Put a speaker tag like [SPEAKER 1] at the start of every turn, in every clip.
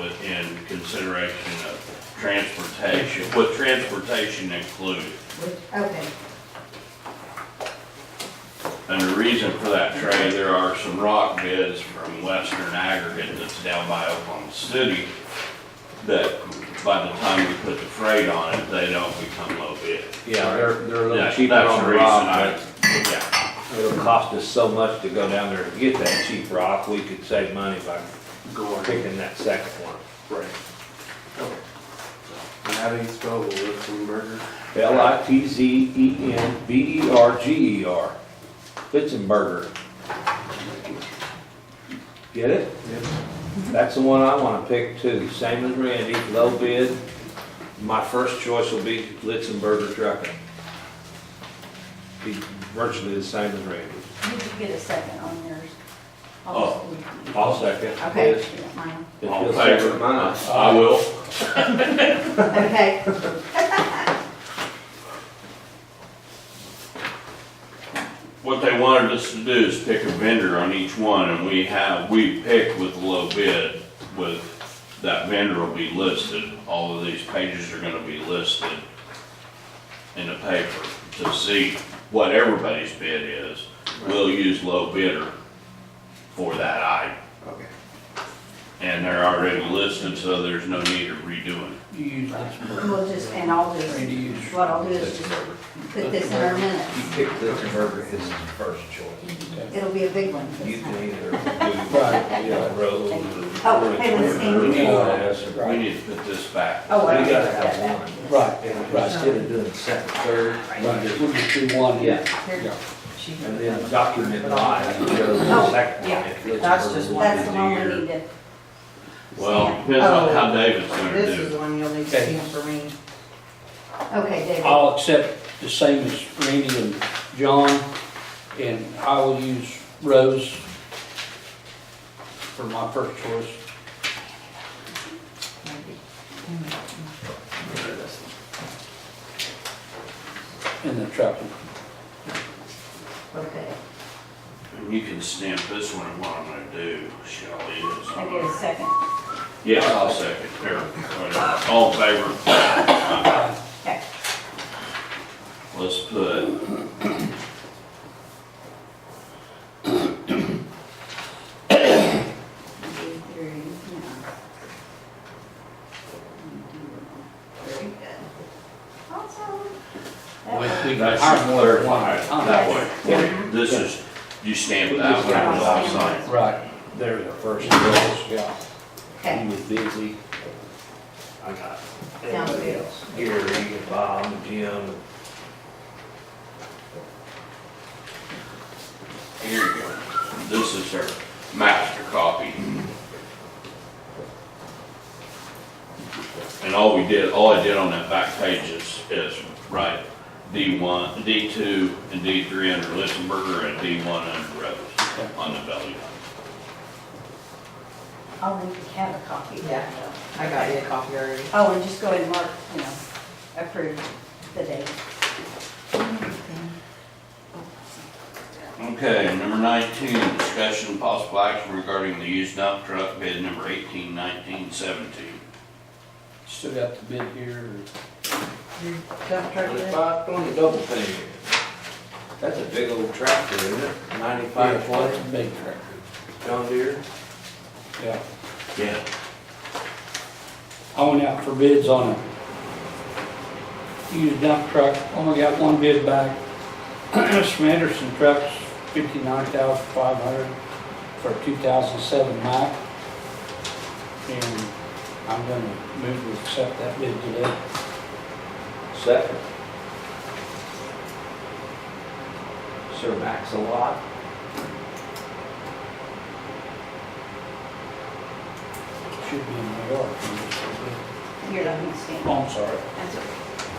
[SPEAKER 1] within consideration of transportation, with transportation included.
[SPEAKER 2] Okay,
[SPEAKER 1] And the reason for that, Trey, there are some rock bids from Western Aggregate that's down by Oklahoma City that by the time you put the freight on it, they don't become low bid.
[SPEAKER 3] Yeah, they're, they're a little
[SPEAKER 1] That-
[SPEAKER 3] cheaper
[SPEAKER 1] that's
[SPEAKER 3] on the
[SPEAKER 1] reason
[SPEAKER 3] rock,
[SPEAKER 1] I- Yeah,
[SPEAKER 3] but it'll cost us so much to go down there and get that cheap rock, we could save money by picking that second one.
[SPEAKER 4] Right. And how do you spell Litzenberger?
[SPEAKER 3] L I T Z E N B E R G E R, Fitzenberger. Get it?
[SPEAKER 4] Yep.
[SPEAKER 3] That's the one I wanna pick too, same as Randy, low bid. My first choice will be Litzenberger Trucking. Be virtually the same as Randy.
[SPEAKER 2] you could get a second on yours.
[SPEAKER 1] Oh.
[SPEAKER 3] I'll second.
[SPEAKER 2] Okay.
[SPEAKER 3] Yes.
[SPEAKER 2] yeah, mine.
[SPEAKER 3] If
[SPEAKER 1] All
[SPEAKER 3] you'll
[SPEAKER 1] in favor?
[SPEAKER 3] second mine.
[SPEAKER 1] I will.
[SPEAKER 2] Okay,
[SPEAKER 1] What they wanted us to do is pick a vendor on each one, and we have, we pick with low bid, with, that vendor will be listed, all of these pages are gonna be listed in the paper to see what everybody's bid is. We'll use low bidder for that item,
[SPEAKER 4] Okay.
[SPEAKER 1] and they're already listed, so there's no need of redoing.
[SPEAKER 5] You use this one.
[SPEAKER 2] we'll just, and I'll just,
[SPEAKER 5] Randy, you use-
[SPEAKER 2] what I'll do is just put this in our
[SPEAKER 3] You
[SPEAKER 2] minutes.
[SPEAKER 3] pick Litzenberger as the first choice.
[SPEAKER 2] It'll be a big one.
[SPEAKER 3] You
[SPEAKER 2] this
[SPEAKER 3] can
[SPEAKER 2] time.
[SPEAKER 3] either do road
[SPEAKER 2] Oh, hey, let's
[SPEAKER 3] or.
[SPEAKER 2] see.
[SPEAKER 1] We need to put this back.
[SPEAKER 2] Oh, I
[SPEAKER 3] We
[SPEAKER 2] gotta
[SPEAKER 3] gotta
[SPEAKER 2] have
[SPEAKER 3] have
[SPEAKER 2] that.
[SPEAKER 3] one.
[SPEAKER 2] Yes.
[SPEAKER 5] Right,
[SPEAKER 3] Instead of doing second, third,
[SPEAKER 5] right, we'll just do one.
[SPEAKER 3] yeah,
[SPEAKER 2] Here.
[SPEAKER 3] and then document live, you go to
[SPEAKER 2] Oh,
[SPEAKER 3] the second
[SPEAKER 2] yeah.
[SPEAKER 3] one. if it's
[SPEAKER 6] That's
[SPEAKER 3] over
[SPEAKER 6] just
[SPEAKER 3] the
[SPEAKER 6] one.
[SPEAKER 2] That's the one we
[SPEAKER 1] Year.
[SPEAKER 2] need to.
[SPEAKER 1] Well, depends on how
[SPEAKER 6] Oh,
[SPEAKER 1] David's gonna do it.
[SPEAKER 6] This is the one you'll need to
[SPEAKER 5] Okay.
[SPEAKER 6] stamp for me.
[SPEAKER 2] Okay, David,
[SPEAKER 5] I'll accept the same as Randy and John, and I will use Rose for my first choice. And the trucking.
[SPEAKER 2] okay,
[SPEAKER 1] You can stamp this one, and what I'm gonna do, Shelley, is.
[SPEAKER 2] I get a second.
[SPEAKER 1] Yeah, I'll second, here, whatever. all in favor,
[SPEAKER 2] Okay,
[SPEAKER 1] let's put.
[SPEAKER 2] one, two, three, yeah. Very good. Awesome. That
[SPEAKER 5] We-
[SPEAKER 2] worked.
[SPEAKER 5] we can
[SPEAKER 1] That's
[SPEAKER 5] hire more than one.
[SPEAKER 1] clarified That way, this is, you stamp that one, and I'll sign.
[SPEAKER 5] Right,
[SPEAKER 3] They're the first choice,
[SPEAKER 5] yeah.
[SPEAKER 2] Okay,
[SPEAKER 3] he was busy. I got everybody
[SPEAKER 2] good.
[SPEAKER 3] else, Gary, and Bob, and Jim,
[SPEAKER 1] Here you go, this is her master copy. And all we did, all I did on that back page is, is write D one, D two, and D three under Listenberger, and D one under Rose on the belly.
[SPEAKER 2] I'll leave the cat a copy.
[SPEAKER 6] Yeah. I got you a copy already.
[SPEAKER 2] Oh, and just go ahead and mark, you know, approve the date.
[SPEAKER 1] Okay, number nineteen, discussion and possible action regarding the used dump truck bid number eighteen nineteen seventeen.
[SPEAKER 5] Still got the bid here.
[SPEAKER 6] Your dump truck is?
[SPEAKER 3] twenty-five, twenty, double thing. That's a big old tractor, isn't it? Ninety-five,
[SPEAKER 5] That's
[SPEAKER 3] twenty,
[SPEAKER 5] a big tractor,
[SPEAKER 3] John Deere.
[SPEAKER 5] yeah.
[SPEAKER 1] Yeah.
[SPEAKER 5] I went out for bids on a used dump truck, only got one bid back. It's from Anderson Trucks, fifty-nine thousand five hundred for a two thousand seven Mack. And I'm gonna move to accept that bid today.
[SPEAKER 3] Second. Sir Max a lot.
[SPEAKER 5] Should be in New York. when it's bid.
[SPEAKER 2] You're not gonna stand.
[SPEAKER 5] Oh, I'm sorry.
[SPEAKER 2] That's okay.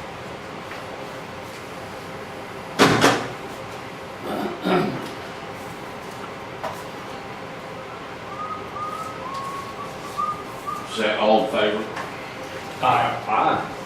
[SPEAKER 1] Is that all in favor?
[SPEAKER 3] Aye.